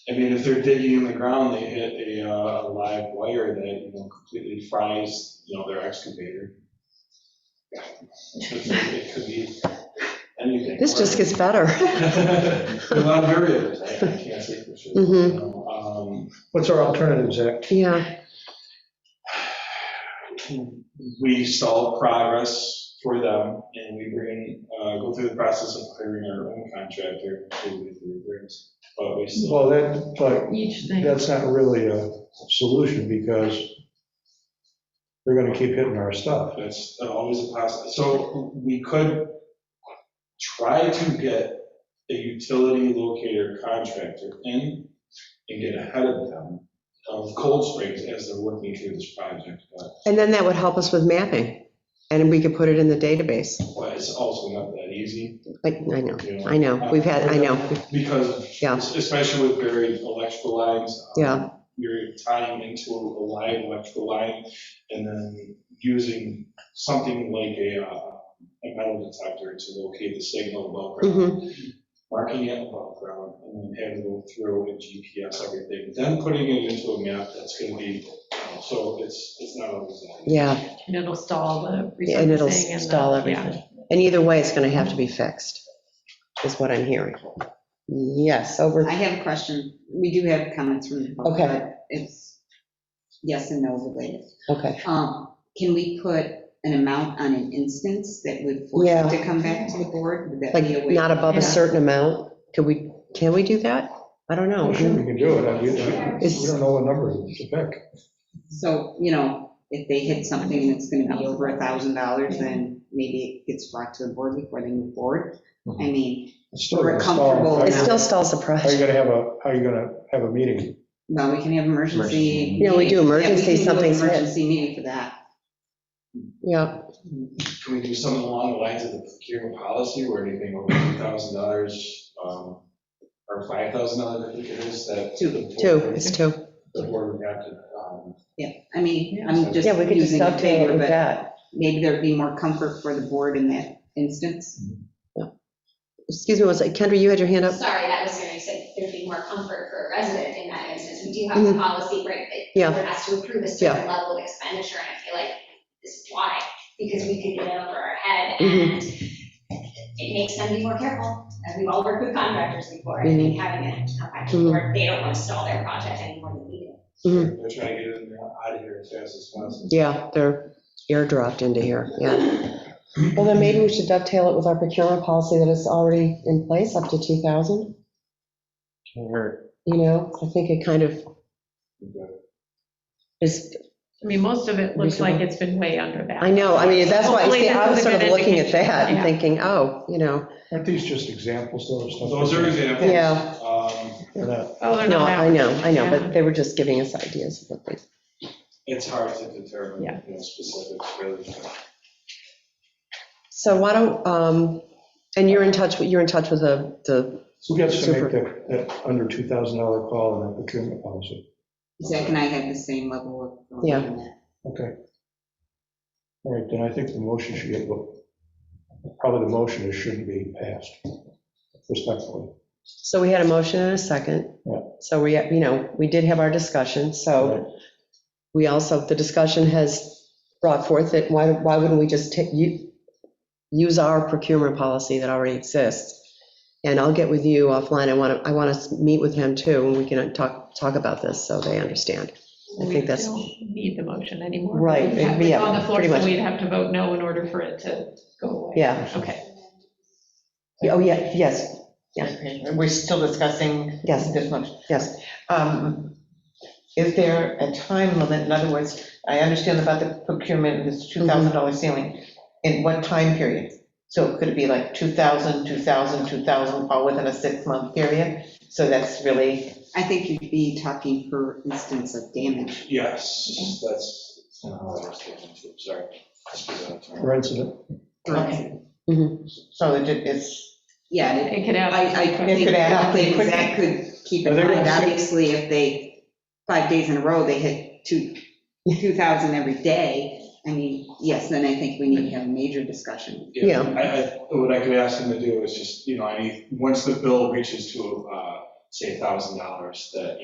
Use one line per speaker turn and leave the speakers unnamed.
I mean, if they're digging in the ground, they hit a, uh, a live wire that, you know, completely fries, you know, their excavator. It could be anything.
This just gets better.
There are A lot of variables, I I can't say for sure. you
Mhm.
know,
Mm-hmm.
um,
What's our alternative, Zach?
Yeah,
Um, We stall progress for them, and we bring, uh, go through the process of hiring our own contractor to do the repairs, but we still.
Well, that, but
Each thing,
that's not really a solution because they're going to keep hitting our stuff.
That's uh, always a possibility. So we could try to get a utility locator contractor in and get ahead of them of Cold Springs as they're working through this project, but
and then that would help us with mapping, and we could put it in the database.
but it's also not that easy,
Like, I know,
you know,
I know, we've had, I know,
because
Yeah.
especially with buried electrical lines. um,
Yeah.
You're tying into a live electrical line and then using something like a, uh, a metal detector to locate the signal above ground.
mhm,
marking it above ground, and then having to go through and GPS everything, then putting it into a map that's gonna be, uh, so it's, it's not always. that easy.
yeah,
and it'll stall the resurfacing.
and it'll
the-
stall
yeah.
everything. And either way, it's gonna have to be fixed, is what I'm hearing. Yes, over,
I have a question. We do have comments from the public,
Okay.
but it's yes and no related.
okay,
Um, Can we put an amount on an instance that would force
Yeah.
it to come back to the board? Would that
like,
be a way?
not above a
Yeah.
certain amount, could we, can we do that? I don't know,
Sure, we can do it. I mean, We don't know what number to pick.
So, you know, if they hit something and it's going to be over a thousand dollars, then maybe it gets brought to the board before they move forward. I mean,
It's still
We're
gonna stall.
comfortable
How
it
you-
still stalls the
How are you
project.
going to have a, how are you going to have a meeting?
well, we can have emergency.
Yeah, we do
meeting. Yeah, we
emergency,
can do an
something's hit.
Emergency meeting for that.
yeah,
Can we do something along the lines of the procurement policy where anything over two thousand dollars, um, or five thousand dollars, I think it is, that.
Two.
the board-
two, it's two.
The board would have to, um,
Yeah, I mean, I'm just
Yeah, we could just
using a
stop doing what
figure,
we've
but
got.
maybe there'd be more comfort for the board in that instance.
Excuse me, one second, Kendra, you had your hand up?
Sorry, that was going to say there'd be more comfort for a resident in that instance. We do have a policy, right?
Mm-hmm. Yeah.
That has to approve a certain level of expenditure, and I feel like this is why, because we could get it over our head, and
Mm-hmm.
it makes them be more careful. As we've all worked with contractors before, and I think
Mm-hmm.
having it come back to the board, they don't want to stall their project anymore than we do.
Mm-hmm.
they're trying to get it out of here as fast as possible.
Yeah, they're airdropped into here, yeah. Well, then maybe we should dovetail it with our procurement policy that is already in place, up to 2,000. You know, I think it kind of is,
I mean, most of it looks like it's been way under that.
I know, I mean, that's why,
Hopefully
see,
this
I was
is a
sort of
good
looking at
indication.
that and
Yeah.
thinking, oh, you know,
Aren't these just examples though? of stuff?
Those are examples.
Yeah.
Um,
They're not-
Oh, they're
no,
not
I
that.
know, I know,
Yeah.
but they were just giving us ideas of what they,
It's hard to determine,
Yeah.
you know, specifics, really.
so why don't, um, and you're in touch, with you're in touch with the, the,
Who gets to
Super.
make that, that under $2,000 call in our procurement policy?
Zach and I have the same level of.
Yeah.
Okay. All right, then I think the motion should get, probably the motion is shouldn't be passed respectfully.
so we had a motion and a second.
Yeah.
So we, you know, we did have our discussion, so. We also, the discussion has brought forth that why, why wouldn't we just take, you, use our procurement policy that already exists? And I'll get with you offline. I want to, I want to meet with him too, and we can talk, talk about this so they understand. I
We
think that's-
don't Need the motion anymore.
Right,
We'd have-
yeah,
it's On the floor,
pretty much.
so we'd have to vote no in order for it to go away.
Yeah.
Okay.
Oh, yeah, yes,
Okay, We're still discussing
yes,
this motion.
yes.
Um, Is there a time limit? In other words, I understand about the procurement, this $2,000 ceiling. In what time period? So could it be like 2,000, 2,000, 2,000, all within a six-month period? So that's really,
I think you'd be talking per instance of damage.
Yes, that's not how I was thinking too, sorry. Just for that term.
For incident,
Okay.
Mm-hmm.
so it is,
Yeah, it-
It could add.
I, I think,
could add
I
up pretty
think Zach could keep in
Are they gonna
mind,
say-
obviously, if they, five days in a row, they hit two, 2,000 every day, I mean, yes, then I think we need to have a major discussion.
Yeah.
I, I, what I could ask them to do is just, you know, any, once the bill reaches to, uh, say $1,000 that,